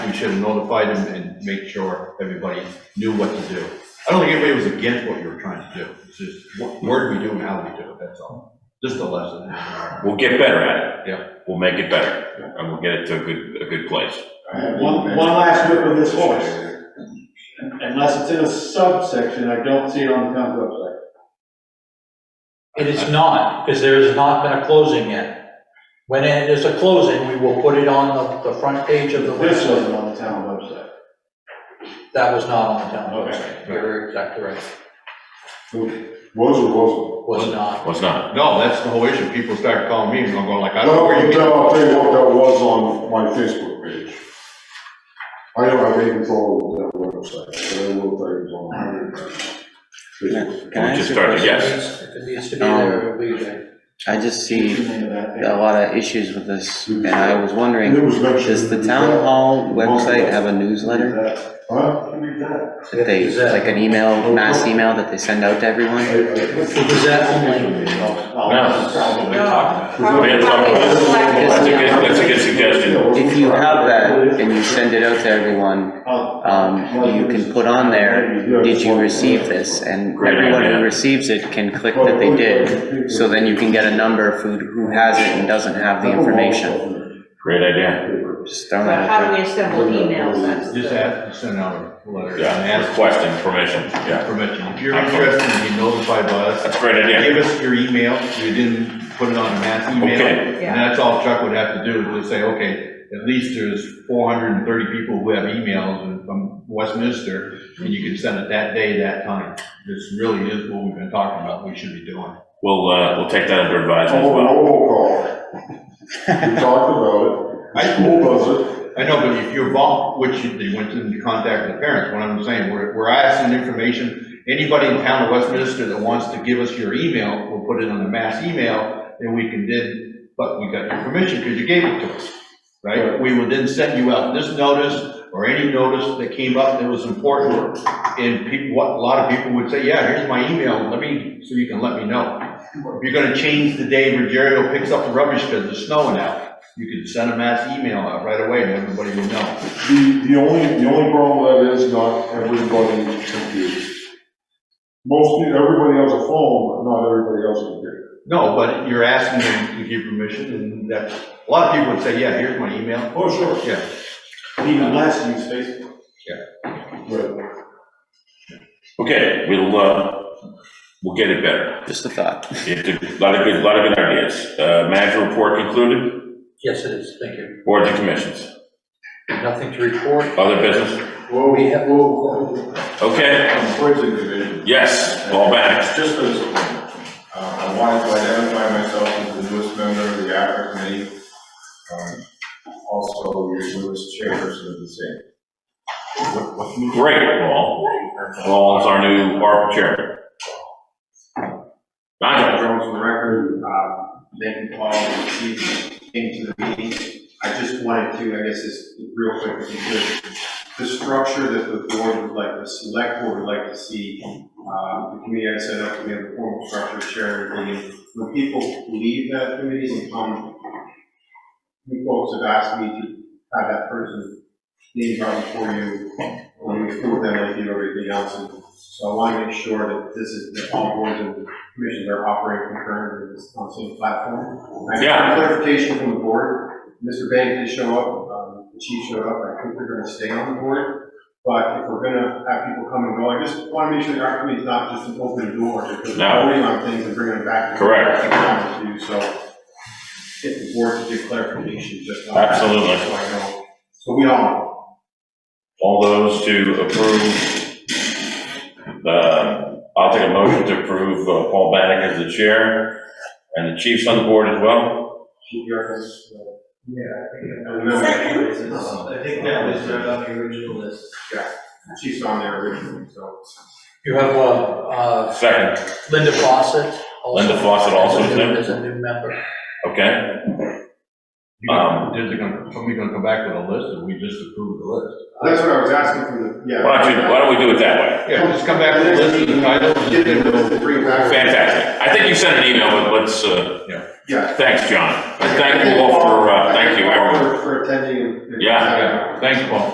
we should have notified him and make sure everybody knew what to do. I don't think anybody was against what you were trying to do, it's just what where do we do and how do we do it, that's all, just a lesson. We'll get better at it. Yeah. We'll make it better, and we'll get it to a good, a good place. One, one last whip of this horse. Unless it's in a subsection, I don't see it on the town website. It is not, because there has not been a closing yet. When it is a closing, we will put it on the, the front page of the This website. wasn't on the town website. That was not on the town Okay. website. You're exactly right. Was or wasn't? Was not. Well, it's not. No, that's the whole issue, people start calling me and I'm going like, I don't know No, where you no, get. I'll tell you what, that was on my Facebook page. I don't have any control over that website, but I will tell you it's on my Facebook. Can I We just ask you a started, question? yes. Um, If it needs to be there, it'll be there. I just What's the see name of that thing? a lot of issues with this, and I was wondering, does the town hall website have a newsletter Uh, Huh? that they, like an email, mass email that they send out to I- everyone? I- Is that only? Probably. That's a good, that's a good suggestion. If you have that and you send it out to everyone, Oh. um, you can put on there, did you receive this? And everyone who receives it can click that they did, so then you can get a number for who has it and doesn't have the information. Great idea. Just throwing But that how out do we assemble emails? That's Just the- ask, send out a letter. and Yeah, ask requesting permission, yeah. Permission, if you're interested in being notified by us, That's a great idea. Give us your email, you didn't put it on a mass email, Okay. and that's all Chuck would have to do, is say, okay, at least there's four hundred and thirty people who have emails and from Westminster, and you can send it that day, that time. This really is what we've been talking about, we should be doing. We'll, uh, we'll take that under advisement as Oh, well. roll call. We talked about it, school does it, I know, but if you're vol, which you- they went to contact the parents, what I'm saying, we're, we're asking information, anybody in town of Westminster that wants to give us your email, we'll put it on the mass email, and we can then, but we got your permission, because you gave it to us, right? We will then send you out this notice, or any notice that came up that was important, and people, what, a lot of people would say, yeah, here's my email, let me, so you can let me know. If you're gonna change the day Rogerio picks up the rubbish because it's snowing out, you can send a mass email out right away and everybody will know. the, the only, the only problem with that is not everybody is confused. Most, people- everybody has a phone, but not everybody has a computer. No, but you're asking them to give permission and that, a lot of people would say, yeah, here's my email. Oh, sure. Yeah, Even less use Facebook. Right. Okay, we'll, uh, we'll get it better. there. Just a thought. It's a lot of good, lot of good ideas. Uh, manager report concluded, Yes, it is. Thank you. boards and commissions, Nothing to report. other business? Well, We we have, Okay, have poison division. yes, all back. Just for this appointment, uh, I wanted to identify myself as the newest member of the APRA committee. Um, Also, your newest chairperson of the same. Great, Paul. Paul's our new ARP chairman. Nigel? Jones for the record, uh, thank you, Paul, for you came to the meeting. I just wanted to, I guess, this real quick, if you could, the structure that the board would like, the select board would like to see, uh, the committee I set up, we have a formal structure, chair and meeting. When people leave that committee and come, you folks have asked me to have that person name brought before you, when we approve them, like you do everything else. And So I want to make sure that this is, that all boards and commissions are operating concurrently with this on the same platform. I Yeah. got clarification from the board, Mr. Bank did show up, um, the chief showed up, I think we're gonna stay on the board, but if we're gonna have people come and go, I just want to make sure that our committee's not just an open door, because No. we're voting on things and bringing them back. Correct. to you, So get the board to do clarification just on that. Absolutely. So I know, so we all know. All those to approve, uh, I'll take a motion to approve uh, Paul Bannick as the chair, and the chief's on the board as well. Keep your efforts, uh, Yeah, I think, and remember that it's- I think that was uh, on the original list. Chief's on there originally, so. you have, uh, uh, Second, Linda Fawcett. also- Linda Fawcett also As is a new- as there, a new member. okay? You know, Um, Is it gonna, somebody gonna come back with a list or we just approve the list? That's what I was asking from the, yeah. Why don't you, why don't we do it that way? Yeah, just come back with a list and titles. Get the list and bring it back. Fantastic. I think you sent an email, but let's, uh, Yeah. thanks, John. And thank you all for, uh, thank you, everyone. For- For attending. and- Yeah. Yeah, thanks, Paul.